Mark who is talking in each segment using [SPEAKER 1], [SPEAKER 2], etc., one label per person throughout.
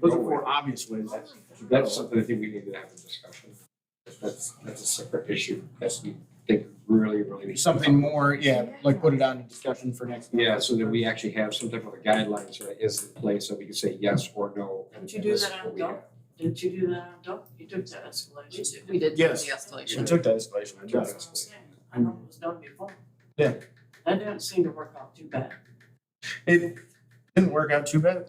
[SPEAKER 1] Those are four obvious ways.
[SPEAKER 2] That's something I think we need to have a discussion. That's, that's a separate issue. That's, we think, really, really. needs to be-
[SPEAKER 1] Something more, yeah, like put it on discussion for next. month.
[SPEAKER 2] Yeah, so that we actually have some type of a guidelines, right, is in place, so we can say yes or no. and-
[SPEAKER 3] Did you
[SPEAKER 2] and
[SPEAKER 3] do
[SPEAKER 2] this
[SPEAKER 3] that
[SPEAKER 2] is
[SPEAKER 3] on
[SPEAKER 2] what we
[SPEAKER 3] adult?
[SPEAKER 2] have.
[SPEAKER 3] Didn't you do that on Dope? You took that escalation. didn't
[SPEAKER 4] We
[SPEAKER 3] you?
[SPEAKER 4] did do the
[SPEAKER 1] Yes.
[SPEAKER 2] Yeah.
[SPEAKER 1] We
[SPEAKER 4] escalation.
[SPEAKER 1] took that escalation. I got
[SPEAKER 3] That's
[SPEAKER 1] it.
[SPEAKER 3] what I'm saying. I know it was done before.
[SPEAKER 1] Yeah.
[SPEAKER 3] That didn't seem to work out too bad.
[SPEAKER 1] It didn't work out too bad.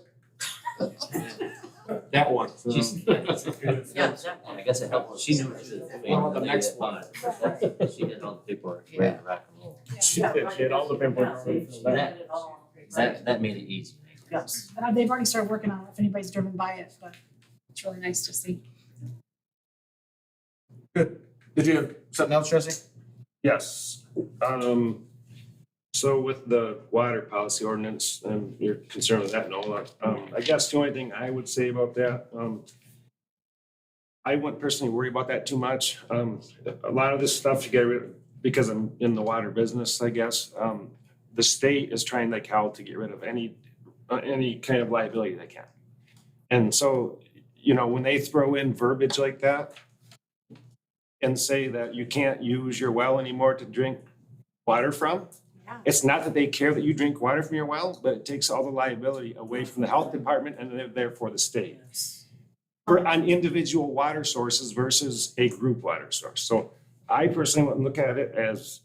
[SPEAKER 2] That one. so-
[SPEAKER 5] She's-
[SPEAKER 3] Yeah, exactly.
[SPEAKER 5] I guess it helped, she knew what she was doing.
[SPEAKER 2] Well, the next one.
[SPEAKER 5] She did all the paperwork, ready to rock and roll.
[SPEAKER 3] Yeah, right.
[SPEAKER 1] She had all the
[SPEAKER 3] Yeah,
[SPEAKER 1] paperwork.
[SPEAKER 3] they- she had it all.
[SPEAKER 5] That, that made it easy.
[SPEAKER 3] Yes.
[SPEAKER 6] But uh, they've already started working on it, if anybody's driven by it, but it's really nice to see.
[SPEAKER 1] Did you have something else, Jesse?
[SPEAKER 7] Yes, um, so with the water policy ordinance, and your concern with that and all that, um, I guess the only thing I would say about that, um, I wouldn't personally worry about that too much, um, a lot of this stuff you get rid, because I'm in the water business, I guess, um, the state is trying like hell to get rid of any, uh, any kind of liability they can. And so, you know, when they throw in verbiage like that, and say that you can't use your well anymore to drink water from.
[SPEAKER 6] Yeah.
[SPEAKER 7] It's not that they care that you drink water from your well, but it takes all the liability away from the health department and then therefore the state. For on individual water sources versus a group water source. So I personally wouldn't look at it as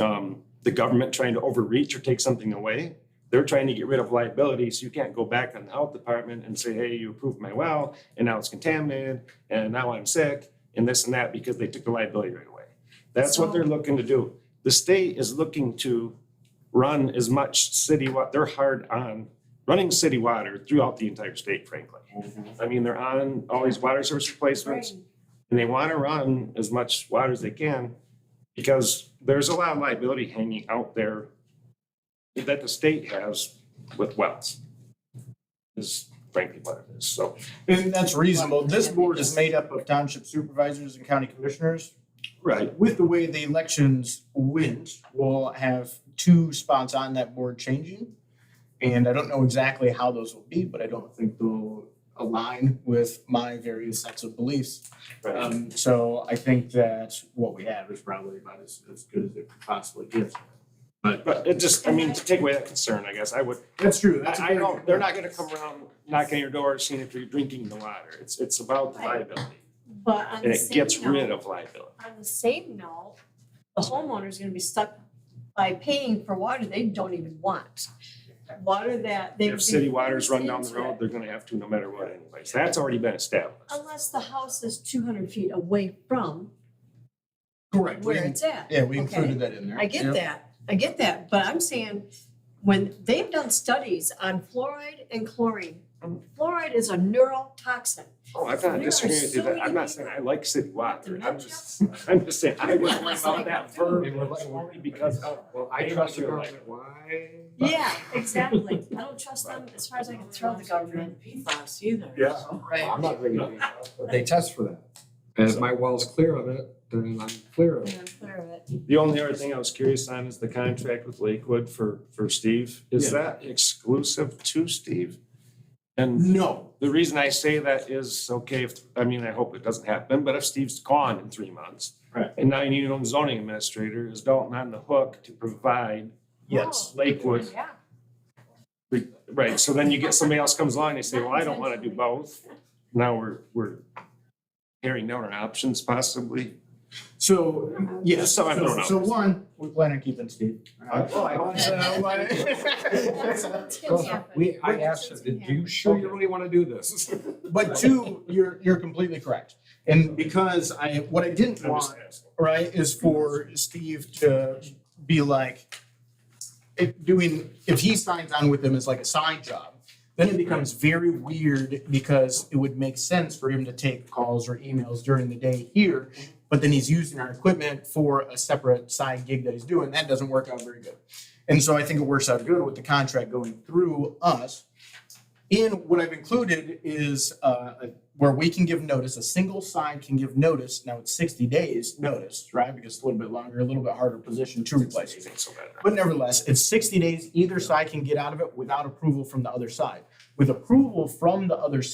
[SPEAKER 7] um, the government trying to overreach or take something away. They're trying to get rid of liability, so you can't go back on the health department and say, hey, you approved my well, and now it's contaminated, and now I'm sick and this and that because they took the liability right away. That's what they're looking to do. The state is looking to run as much city, wa- they're hard on running city water throughout the entire state, frankly.
[SPEAKER 1] Mm-hmm.
[SPEAKER 7] I mean, they're on all these water source replacements and they want to run as much water as they can because there's a lot of liability hanging out there that the state has with wells. Is frankly what it is. So
[SPEAKER 1] And that's reasonable. This board is made up of township supervisors and county commissioners.
[SPEAKER 7] Right.
[SPEAKER 1] With the way the elections went, we'll have two spots on that board changing. And I don't know exactly how those will be, but I don't think they'll align with my various sets of beliefs. Um, so I think that what we have is probably about as, as good as it could possibly gets.
[SPEAKER 7] But it just, I mean, to take away that concern, I guess, I would,
[SPEAKER 1] That's true. That's a
[SPEAKER 7] I, I
[SPEAKER 1] very
[SPEAKER 7] don't,
[SPEAKER 1] good
[SPEAKER 7] they're
[SPEAKER 1] point.
[SPEAKER 7] not gonna come around knocking your door seeing if you're drinking the water. It's, it's about the liability.
[SPEAKER 6] But on
[SPEAKER 7] And
[SPEAKER 6] the
[SPEAKER 7] it gets
[SPEAKER 6] same
[SPEAKER 7] rid
[SPEAKER 6] note,
[SPEAKER 7] of liability.
[SPEAKER 6] on the same note, the homeowner's gonna be stuck by paying for water they don't even want. Water that they.
[SPEAKER 7] If city waters run down the road, they're gonna have to no matter what anyways. That's already been established.
[SPEAKER 6] Unless the house is two hundred feet away from
[SPEAKER 1] Correct. We-
[SPEAKER 6] where it's at.
[SPEAKER 1] Yeah, we
[SPEAKER 6] Okay.
[SPEAKER 1] included that in there.
[SPEAKER 6] I get
[SPEAKER 1] Yep.
[SPEAKER 6] that, I get that, but I'm saying, when they've done studies on fluoride and chlorine, fluoride is a neurotoxin.
[SPEAKER 7] Oh, I'm not
[SPEAKER 6] There are
[SPEAKER 7] disagreeing with you,
[SPEAKER 6] so
[SPEAKER 7] but I'm
[SPEAKER 6] many
[SPEAKER 7] not saying I like city water. I'm
[SPEAKER 6] Dementia?
[SPEAKER 7] just, I'm just saying, I wouldn't worry
[SPEAKER 6] It's
[SPEAKER 7] about
[SPEAKER 6] like-
[SPEAKER 7] that verb.
[SPEAKER 2] They were like-
[SPEAKER 7] Only because of,
[SPEAKER 2] Oh, Well, I trust the government, why?
[SPEAKER 6] Yeah, exactly. I don't trust them as far as I can throw the government.
[SPEAKER 3] PFAS either.
[SPEAKER 7] Yeah.
[SPEAKER 3] so.
[SPEAKER 4] Right.
[SPEAKER 2] I'm not bringing it up, but they test for that. And if my well's clear of it, then I'm clear of it.
[SPEAKER 7] The only other thing I was curious on is the contract with Lakewood for, for Steve. Is that exclusive to Steve? And
[SPEAKER 1] No,
[SPEAKER 7] The reason I say that is, okay, if, I mean, I hope it doesn't happen, but if Steve's gone in three months.
[SPEAKER 1] Right.
[SPEAKER 7] And now you need an own zoning administrator, is Dalton on the hook to provide
[SPEAKER 1] yes.
[SPEAKER 7] Lakewood?
[SPEAKER 6] Yeah.
[SPEAKER 7] Right, so then you get, somebody else comes along, they say, well, I don't wanna do both. Now we're, we're tearing down our options possibly.
[SPEAKER 1] So, yes,
[SPEAKER 7] Just so I don't
[SPEAKER 1] so,
[SPEAKER 7] know.
[SPEAKER 1] so one, Oh, we plan on keeping Steve.
[SPEAKER 2] I- well, I hope so.
[SPEAKER 6] Yeah.
[SPEAKER 2] We, I asked her, do you sure you really wanna do this?
[SPEAKER 1] But two, you're, you're completely correct. And because I, what I didn't
[SPEAKER 7] I'm just
[SPEAKER 1] want,
[SPEAKER 7] asking.
[SPEAKER 1] right, is for Steve to be like, if doing, if he signs on with them as like a side job, then it becomes very weird because it would make sense for him to take calls or emails during the day here. But then he's using our equipment for a separate side gig that he's doing. That doesn't work out very good. And so I think it works out good with the contract going through us. In what I've included is uh, a- where we can give notice, a single side can give notice. Now it's 60 days notice, right? Because it's a little bit longer, a little bit harder position to replace.
[SPEAKER 7] Amazing, so bad.
[SPEAKER 1] But nevertheless, it's sixty days, either side can get out of it without approval from the other side. With approval from the other